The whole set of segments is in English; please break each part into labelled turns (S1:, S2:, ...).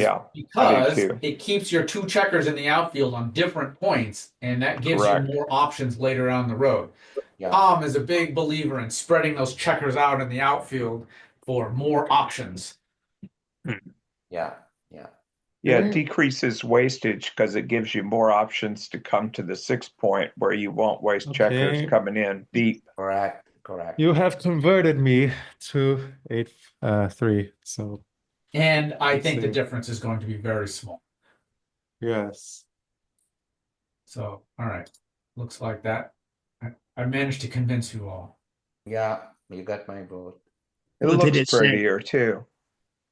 S1: Yeah.
S2: because
S1: too.
S2: it keeps your two checkers in the outfield on different points, and that gives
S1: Correct.
S2: you more options later on the road.
S3: Yeah.
S2: Tom is a big believer in spreading those checkers out in the outfield for more options.
S3: Yeah.
S1: Yeah,
S4: Mhm.
S1: it decreases wastage because it gives you more options to come to the six point where you won't waste checkers
S5: Okay.
S1: coming in deep.
S3: Correct. Correct.
S5: You have converted me to eight, uh, three. So
S2: And I
S5: Let's
S2: think the
S5: see.
S2: difference is going to be very small.
S5: yes,
S2: So, all right, looks like that. I, I managed to convince you all.
S3: Yeah. You got my vote.
S1: It
S6: What Oh, did
S1: looks
S6: it say?
S1: prettier too.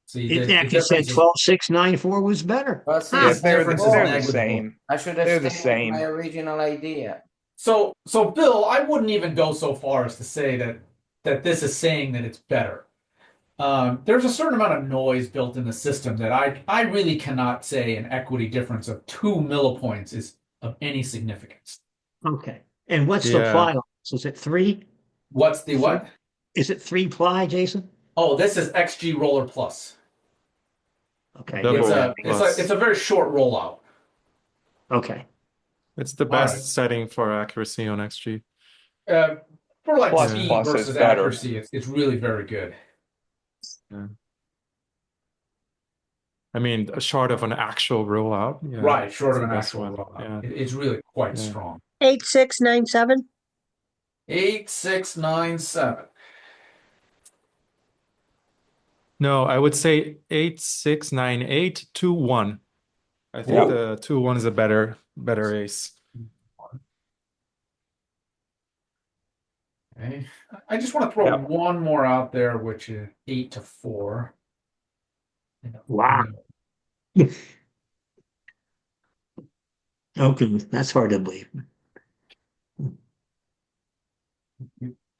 S2: See, the-
S6: It
S2: the
S6: actually said
S2: difference is-
S6: twelve, six, nine, four was better.
S3: Well, see,
S2: Ah,
S1: Yeah,
S3: it's
S1: they're, the-
S2: difference
S3: different.
S2: is
S1: they're the
S2: negligible.
S1: same.
S3: I should
S1: They're
S3: have
S1: the
S3: stayed with my
S1: same.
S3: original idea.
S2: So, so Bill, I wouldn't even go so far as to say that that this is saying that it's better. Um, there's a certain amount of noise built in the system that I I really cannot say an equity difference of two millipoints is of any significance.
S6: Okay. And what's the
S5: Yeah.
S6: ply? on this? Is it three?
S2: What's the what?
S6: Is it three ply, Jason?
S2: Oh, this is XG Roller Plus.
S6: Okay.
S5: Double.
S2: It's a it's
S5: plus.
S2: a it's a very short rollout.
S6: Okay.
S5: it's the
S2: Alright.
S5: best setting for accuracy on XG.
S2: Uh, for like
S1: Plus-
S2: speed
S1: plus is
S2: versus
S1: better.
S2: accuracy, it's it's really very good.
S5: I mean, short of an actual rollout. Yeah.
S2: Right, short of
S5: it's
S2: an
S5: the best
S2: actual
S5: one,
S2: rollout.
S5: yeah.
S2: It- It's really quite
S5: Yeah.
S2: strong.
S4: Eight, six, nine, seven.
S2: Eight, six, nine, seven.
S5: No, I would say eight, six, nine, eight, two, one. I think
S1: Yeah.
S5: the two one is a better better ace.
S2: Okay. I just want to throw
S1: Yeah.
S2: one more out there, which is eight to four. You know,
S6: Wow.
S2: you know,
S6: Okay. That's hard to believe.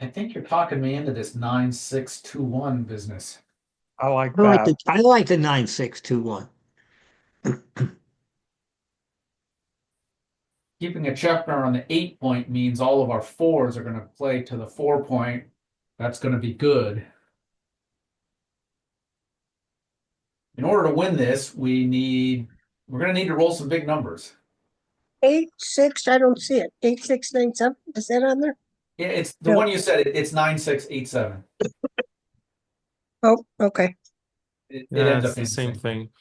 S2: I think you're talking me into this nine, six, two, one business.
S1: I like
S6: Oh, I like
S1: that.
S6: the, I like the nine, six, two, one.
S2: Keeping a checker on the eight point means all of our fours are going to play to the four point. That's going to be good. In order to win this, we need, we're going to need to roll some big numbers.
S4: Eight, six, I don't see it. Eight, six, nine, seven. Is that on there?
S2: Yeah, It's the
S4: Yeah.
S2: one you said, it- it's nine, six, eight, seven.
S4: Oh, okay.
S2: It it
S5: Yeah,
S2: ends up
S5: it's the
S2: being the
S5: same
S2: same.
S5: thing.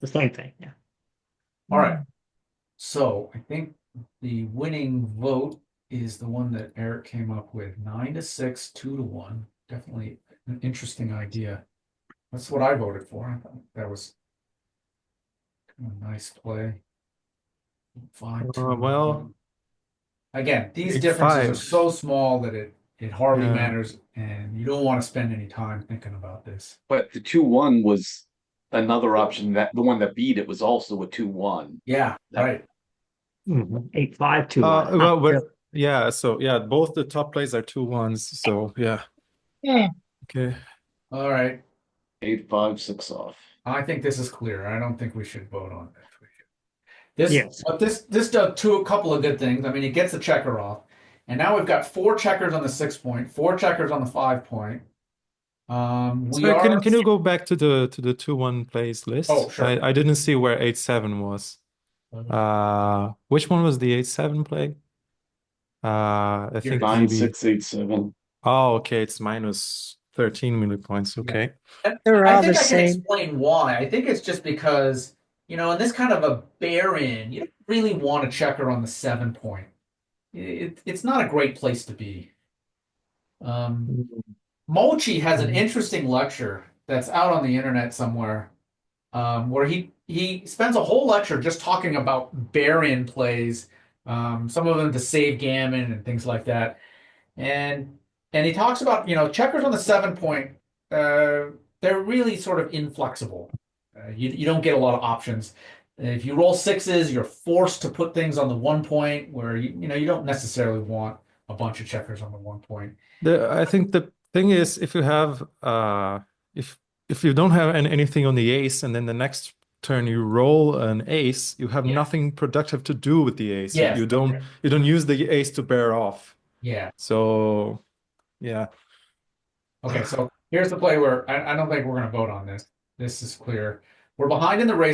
S6: The same thing. Yeah.
S2: All right. So I think the winning vote is the one that Eric came up with, nine to six, two to one. Definitely an interesting idea. That's what I voted for. I thought that was kind of a nice play. Five. two,
S5: Uh, well-
S2: Again, these
S5: Eight,
S2: differences are
S5: five.
S2: so small that it it hardly
S5: Yeah.
S2: matters, and you don't want to spend any time thinking about this.
S7: But the two one was another option that the one that beat it was also a two one.
S2: Yeah, right.
S6: Mhm. Eight, five, two,
S5: Uh,
S6: one.
S5: well, we're- yeah, so yeah, both the top plays are two ones. So yeah,
S4: Yeah.
S5: okay.
S2: All right.
S7: Eight five six off.
S2: I think this is clear. I don't think we should vote on this. We should- This,
S6: Yes.
S2: but this, this does two, a couple of good things. I mean, it gets the checker off. And now we've got four checkers on the six point, four checkers on the five point. Um, we
S5: Sorry, can
S2: are,
S5: can you go back to the to the two one plays list?
S2: Oh, sure. Mm-hmm.
S5: I, I didn't see where eight seven was. Uh, which one was the eight seven play? Uh, I think
S7: Nine
S5: maybe.
S7: six eight seven.
S5: Oh, okay, it's minus thirteen millipoints. Okay,
S4: They're
S2: I
S4: all the
S2: think I can
S4: same.
S2: explain why. I think it's just because, you know, in this kind of a bear in, you don't really want a checker on the seven point. It, it's not a great place to be. Um,
S4: Mm-hmm.
S2: Mochi has an interesting lecture that's out on the internet somewhere, um, where he he spends a whole lecture just talking about bear-in plays, um, some of them to save gammon and things like that, and and he talks about you know checkers on the seven point, uh, they're really sort of inflexible. Uh, you you don't get a lot of options. If you roll sixes, you're forced to put things on the one point where you you know you don't necessarily want a bunch of checkers on the one point.
S5: the I think the thing is if you have uh if if you don't have an, anything on the ace and then the next turn you roll an ace, you have
S2: Yeah.
S5: nothing productive to do with the ace. You-
S2: Yes,
S5: You don't
S2: okay.
S5: you don't use the ace to bear off.
S2: Yeah.
S5: So yeah,
S2: Okay, so here's the play where I, I don't think we're gonna vote on this. This is clear. We're behind in the race.